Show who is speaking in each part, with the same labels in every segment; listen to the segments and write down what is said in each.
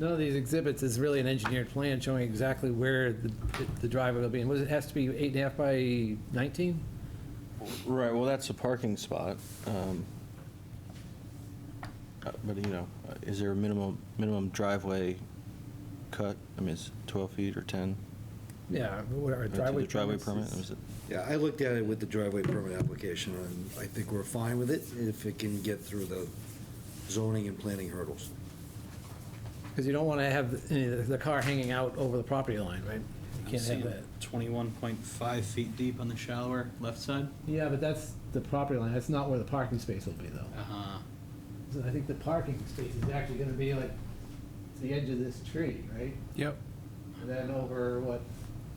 Speaker 1: None of these exhibits is really an engineered plan showing exactly where the the driveway will be. And was it, has to be eight and a half by 19?
Speaker 2: Right, well, that's a parking spot. um, uh, But, you know, uh, is there a minimum, minimum driveway cut? I mean, it's 12 feet or 10?
Speaker 1: Yeah, whatever,
Speaker 2: Uh, to the
Speaker 1: driveway.
Speaker 2: Driveway permit,
Speaker 1: permits is-
Speaker 2: is it?
Speaker 3: Yeah, I looked at it with the driveway permit application, and I think we're fine with it if it can get through the zoning and planning hurdles.
Speaker 1: Because you don't want to have any of the car hanging out over the property line, right? You
Speaker 4: I'm
Speaker 1: can't have
Speaker 4: seeing
Speaker 1: that.
Speaker 4: 21.5 feet deep on the shallower left side.
Speaker 1: Yeah, but that's the property line, that's not where the parking space will be, though.
Speaker 4: Uh-huh.
Speaker 1: So I think the parking space is actually going to be like to the edge of this tree, right?
Speaker 5: Yep.
Speaker 1: And then over, what,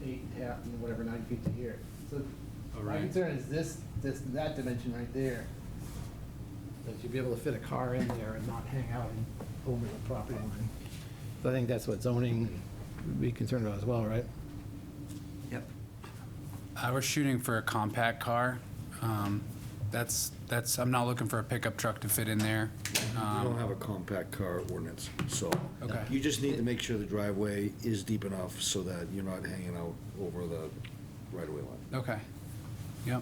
Speaker 1: eight and a half, and whatever, nine feet to here. So
Speaker 4: Oh,
Speaker 1: my
Speaker 4: right.
Speaker 1: concern is this, this, that dimension right there. That you'd be able to fit a car in there and not hang out in- over the property line. So I think that's what zoning would be concerned about as well, right?
Speaker 3: Yep.
Speaker 5: I was shooting for a compact car. Um, That's, that's, I'm not looking for a pickup truck to fit in there.
Speaker 3: We don't
Speaker 5: Um,
Speaker 3: have a compact car ordinance, so.
Speaker 5: Okay.
Speaker 3: You just need to make sure the driveway is deep enough so that you're not hanging out over the right-of-way line.
Speaker 5: Okay. Yep.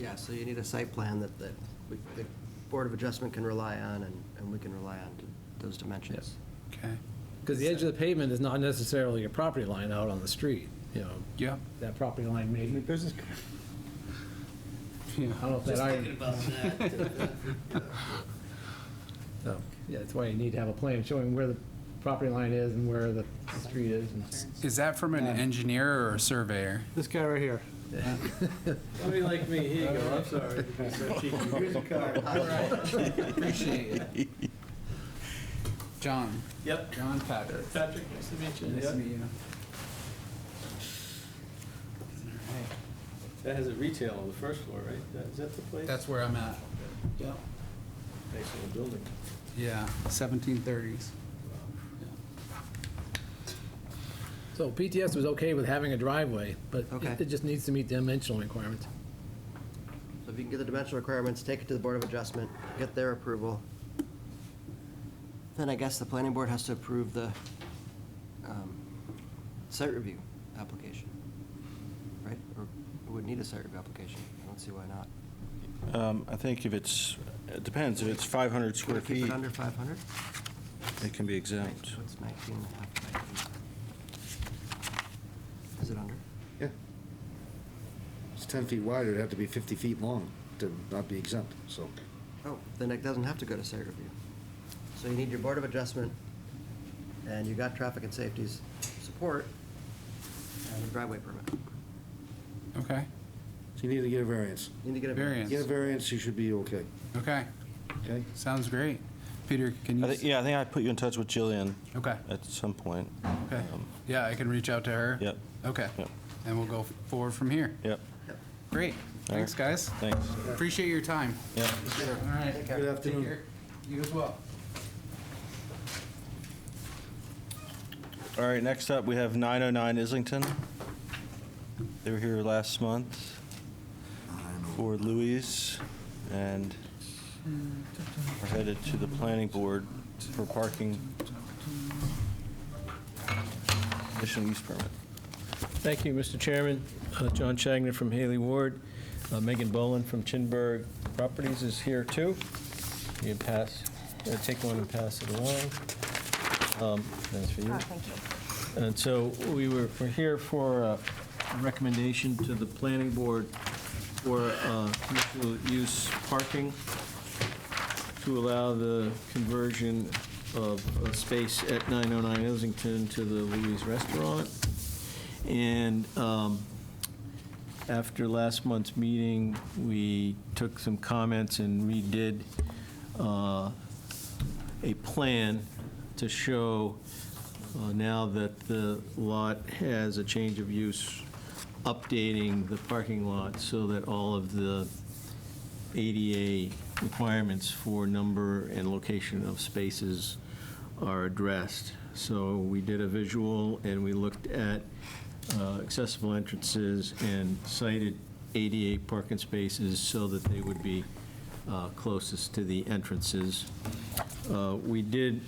Speaker 6: Yeah, so you need a site plan that, that we- the Board of Adjustment can rely on, and, and we can rely on those dimensions.
Speaker 5: Okay.
Speaker 1: Because the edge of the pavement is not necessarily your property line out on the street, you know,
Speaker 5: Yep.
Speaker 1: that property line may, I
Speaker 5: Business. Yeah.
Speaker 1: don't know if that iron. So, yeah, that's why you need to have a plan showing where the property line is and where the street is. and-
Speaker 5: Is that from an engineer or a surveyor?
Speaker 7: This guy right here.
Speaker 4: Somebody like me, here you go, I'm sorry. Here's a
Speaker 5: Appreciate it. John.
Speaker 4: Yep.
Speaker 5: John Patrick.
Speaker 4: Patrick, nice to meet you.
Speaker 5: Nice to meet you.
Speaker 4: That has a retail on the first floor, right? Is that the place?
Speaker 5: That's where I'm at. Yep.
Speaker 4: Nice little building.
Speaker 5: Yeah, 1730s.
Speaker 1: So PTS was okay with having a driveway, but
Speaker 6: Okay.
Speaker 1: it just needs to meet dimensional requirements.
Speaker 6: So if you can get the dimensional requirements, take it to the Board of Adjustment, get their approval. Then I guess the planning board has to approve the um, site review application, right? Or it would need a site review application. I don't see why not.
Speaker 2: Um, I think if it's, it depends, if it's 500
Speaker 6: Can
Speaker 2: square
Speaker 6: we keep
Speaker 2: feet,
Speaker 6: it under 500?
Speaker 2: it can be exempt.
Speaker 6: What's 19 and a half by 8? Is it under?
Speaker 3: Yeah. It's 10 feet wide, it'd have to be 50 feet long to not be exempt, so.
Speaker 6: Oh, then it doesn't have to go to site review. So you need your Board of Adjustment, and you got Traffic and Safety's support, and a driveway permit.
Speaker 5: Okay,
Speaker 3: So you need to get a variance.
Speaker 6: You need to get a
Speaker 5: Variance.
Speaker 3: Get
Speaker 6: variance.
Speaker 3: a variance, you should be okay,
Speaker 5: okay.
Speaker 3: okay?
Speaker 5: Sounds great. Peter, can
Speaker 2: I
Speaker 5: you?
Speaker 2: thi- Yeah, I think I put you in touch with Jillian
Speaker 5: Okay,
Speaker 2: at some point.
Speaker 5: okay.
Speaker 2: Um,
Speaker 5: Yeah, I can reach out to her?
Speaker 2: Yep,
Speaker 5: Okay,
Speaker 2: Yep.
Speaker 5: and we'll go f- forward from here.
Speaker 2: yep,
Speaker 5: Great, thanks, guys.
Speaker 2: thanks.
Speaker 5: Appreciate your time.
Speaker 2: Yep.
Speaker 5: All right.
Speaker 3: Good afternoon.
Speaker 5: You as well.
Speaker 2: All right, next up, we have 909 Islington. They were here last month for Louis and are headed to the planning board for parking conditional use permit.
Speaker 8: Thank you, Mr. Chairman. Uh, John Chagnon from Haley Ward. Uh, Megan Boland from Chinburg Properties is here, too. You can pass, uh, take one and pass it along. Um, That's for you.
Speaker 9: Oh, thank you.
Speaker 8: And so we were, we're here for a recommendation to the planning board for uh, commercial use parking to allow the conversion of a space at 909 Islington to the Louis Restaurant. And um, after last month's meeting, we took some comments and redid uh, a plan to show uh, now that the lot has a change of use, updating the parking lot so that all of the ADA requirements for number and location of spaces are addressed. So we did a visual, and we looked at uh, accessible entrances and cited ADA parking spaces so that they would be uh, closest to the entrances. Uh, We did